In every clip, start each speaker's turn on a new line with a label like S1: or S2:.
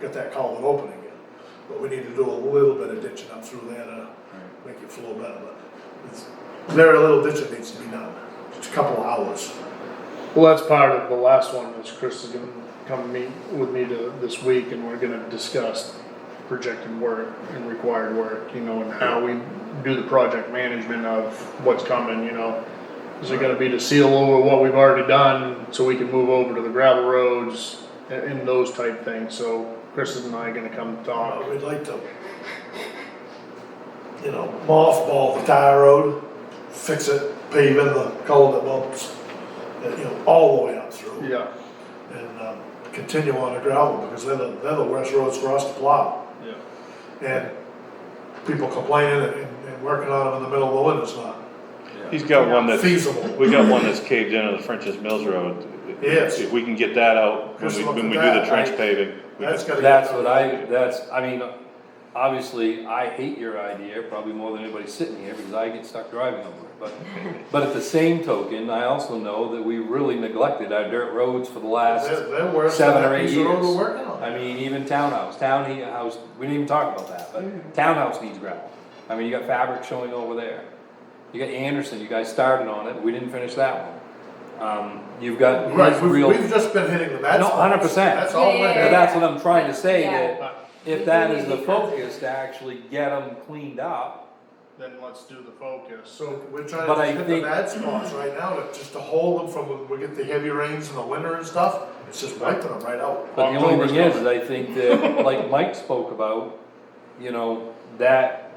S1: get that culvert open again. But we need to do a little bit of ditching up through there to make it flow better, but it's, very little ditching needs to be done, just a couple of hours.
S2: Well, that's part of the last one, is Chris is gonna come meet with me to, this week, and we're gonna discuss projected work and required work, you know, and how we do the project management of what's coming, you know. Is it gonna be to seal over what we've already done, so we can move over to the gravel roads, and, and those type things, so Chris and I are gonna come
S1: Uh,
S2: talk.
S1: We'd like to, you know, mothball the tire road, fix it, pave in the culvert bumps, uh, you know, all the way up through.
S2: Yeah,
S1: and um, continue on the gravel, because they're the, they're the worst roads for us to plow.
S2: yeah.
S1: And people complaining and, and working on them in the middle of the winter is not
S3: He's got one that,
S1: feasible.
S3: we got one that's caved in on the French's Mills Road.
S1: Yes.
S3: If we can get that out, when
S1: Just
S3: we,
S1: look
S3: when
S1: at
S3: we do the
S1: that.
S3: trench paving. we
S1: That's gotta
S3: can-
S1: get
S4: That's
S1: done.
S4: what I, that's, I mean, obviously, I hate your idea probably more than anybody sitting here because I get stuck driving over it. But, but at the same token, I also know that we really neglected our dirt roads for the last,
S1: They're, they're worse than
S4: seven or
S1: that
S4: eight
S1: piece of road
S4: years.
S1: we're working on.
S4: I mean, even townhouse, townhouse, we didn't even talk about that,
S1: Mm-hmm.
S4: but townhouse needs gravel. I mean, you got fabric showing over there. You got Anderson, you guys started on it, we didn't finish that one. Um, you've got.
S1: Right, we've,
S4: real-
S1: we've just been hitting the bad
S4: No,
S1: spots.
S4: 100%.
S1: That's all we're
S5: Yeah,
S4: But
S1: doing.
S5: yeah,
S4: that's what I'm trying to say,
S5: Yeah.
S4: that if that is the focus, to actually get them cleaned up.
S2: Then let's do the focus.
S1: So we're trying
S4: But I
S1: to hit the
S4: think-
S1: bad spots right now, to- just to hold them from, when we get the heavy rains in the winter and stuff, it's just wiping them right out.
S4: But the only
S2: October's
S4: thing is,
S2: coming.
S4: is I think that, like Mike spoke about, you know, that,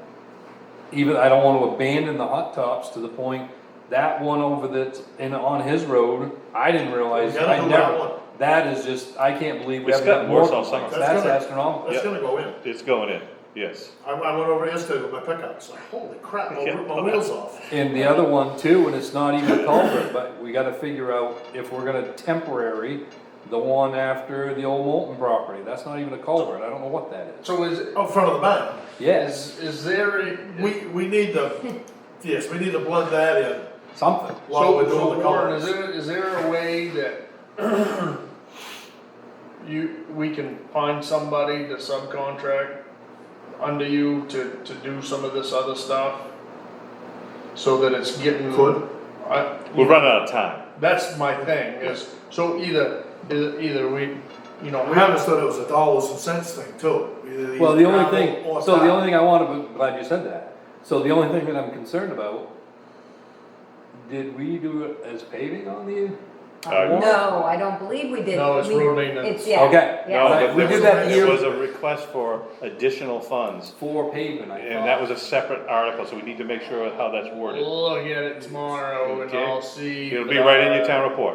S4: even, I don't wanna abandon the hot tops to the point, that one over that's in, on his road, I didn't realize,
S1: We gotta
S4: I
S1: do that one.
S4: never, that is just, I can't believe we
S3: It's
S4: haven't got
S3: gotten
S4: more
S3: worse all summer.
S4: complaints,
S1: That's
S4: that's
S1: gonna-
S4: astronomical.
S1: That's
S3: Yep.
S1: gonna go in.
S3: It's going in, yes.
S1: I, I went over yesterday with my pickup, it's like, holy crap, I'll
S3: Yeah.
S1: rip my wheels off.
S4: And the other one too, and it's not even a culvert, but we gotta figure out if we're gonna temporary the one after the old Moulton property, that's not even a culvert, I don't know what that is.
S6: So is,
S1: Out front of the barn.
S4: Yes,
S6: is, is there, a-
S1: We, we need to, yes, we need to blend that in
S4: something,
S1: while
S6: so,
S1: we're doing
S6: so
S1: the
S6: Warren, is
S1: colors.
S6: there, is there a way that you, we can find somebody to subcontract under you to, to do some of this other stuff? So that it's getting.
S1: Could.
S6: I,
S3: We're running out of time.
S6: that's my thing, is, so either, either, either we, you know,
S1: We understood it was a dollars and cents thing too. Either you
S4: well, the only
S1: gravel
S4: thing,
S1: or
S4: so the
S1: tile.
S4: only thing I wanna, I'm glad you said that, so the only thing that I'm concerned about, did we do it as paving on the?
S3: Uh,
S4: Warren?
S5: No, I don't believe we did.
S6: No, it's
S5: We-
S6: road maintenance.
S5: It's, yeah.
S4: Okay.
S3: No,
S5: yeah.
S3: but
S4: We
S3: there
S4: did
S3: was,
S4: that
S3: there
S4: year-
S3: was a request for additional funds,
S4: For pavement, I thought.
S3: and that was a separate article, so we need to make sure how that's worded.
S6: look at it tomorrow and
S3: Okay.
S6: I'll see.
S3: It'll be right in your town report.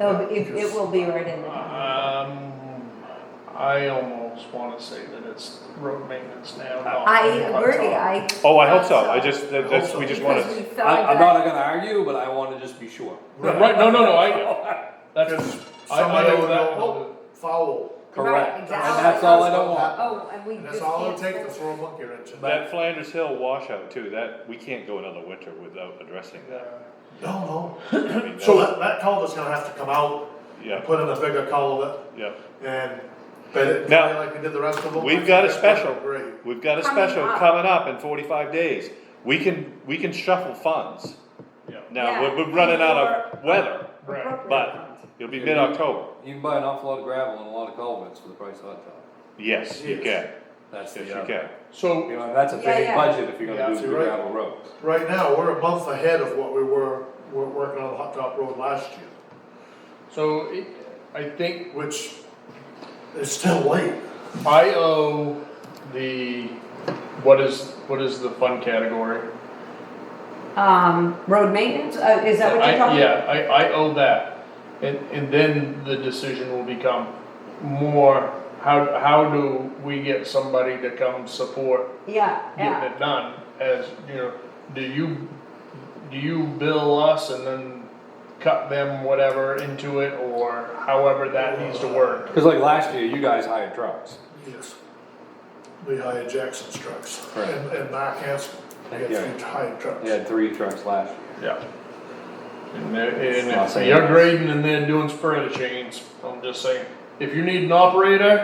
S5: It'll be- It, it will be right in there.
S6: Um, I almost wanna say that it's road maintenance now. not
S5: I
S6: hot
S5: agree,
S6: tub.
S5: I.
S3: Oh, I hope so,
S5: thought
S3: I just, that- that's, we just wanna,
S5: Because we felt
S4: I, I'm
S5: that-
S4: not gonna argue, but I wanna just be sure.
S6: Right, no, no, no, I, that's, I, I
S1: Somebody
S6: owe
S1: would
S6: that
S1: go,
S6: one.
S1: oh, foul.
S4: Correct, and
S5: exactly.
S4: that's all I don't want.
S5: Oh, and we
S1: And
S5: just.
S1: that's all it
S5: can't-
S1: takes to throw a monkey wrench in.
S3: that Flanders Hill washout too, that, we can't go another winter without addressing that.
S1: No,
S3: I mean,
S1: no. So that,
S3: that's-
S1: that culvert's gonna have to come out,
S3: Yeah,
S1: put in a bigger culvert
S3: yeah.
S1: and bed it
S3: Now,
S1: dry like we did the rest of them.
S3: We've got a
S1: That's gonna
S3: special,
S1: be Great.
S3: we've got a
S5: Coming
S3: special
S5: up.
S3: coming up in forty-five days. We can, we can shuffle funds.
S6: Yeah.
S3: Now,
S5: Yeah.
S3: we're, we're running out of weather,
S6: Right,
S3: but it'll be mid-October.
S4: You can buy an awful lot of gravel and a lot of culverts for the price of hot top.
S3: Yes, you can,
S1: Yes.
S4: That's the.
S3: yes, you
S4: other-
S3: can.
S6: so.
S4: You know, that's a
S5: Yeah,
S4: big
S5: yeah.
S4: budget if you're
S6: Yeah,
S4: gonna do the
S1: you're right.
S4: gravel roads.
S1: Right now, we're a month ahead of what we were, were working on the hot top road last year.
S6: So it- I think
S1: which is still late.
S6: I owe the, what is, what is the fund category?
S5: Um, road maintenance, uh, is that what
S6: I,
S5: you're talking?
S6: yeah, I, I owe that. And, and then the decision will become more, how, how do we get somebody to come support
S5: Yeah, yeah.
S6: getting it done? As, you know, do you, do you bill us and then cut them whatever into it or however that needs to work?
S4: Cause like last year, you guys hired trucks.
S1: Yes. We hired Jackson's trucks
S4: Right.
S1: and, and Mark Hanson. We had
S4: Yeah.
S1: three hired trucks.
S4: They had three trucks last year.
S6: Yeah. And they're, and
S4: Los
S6: if you're
S4: Angeles.
S6: grading and they're doing spreader chains, I'm just saying, if you need an operator,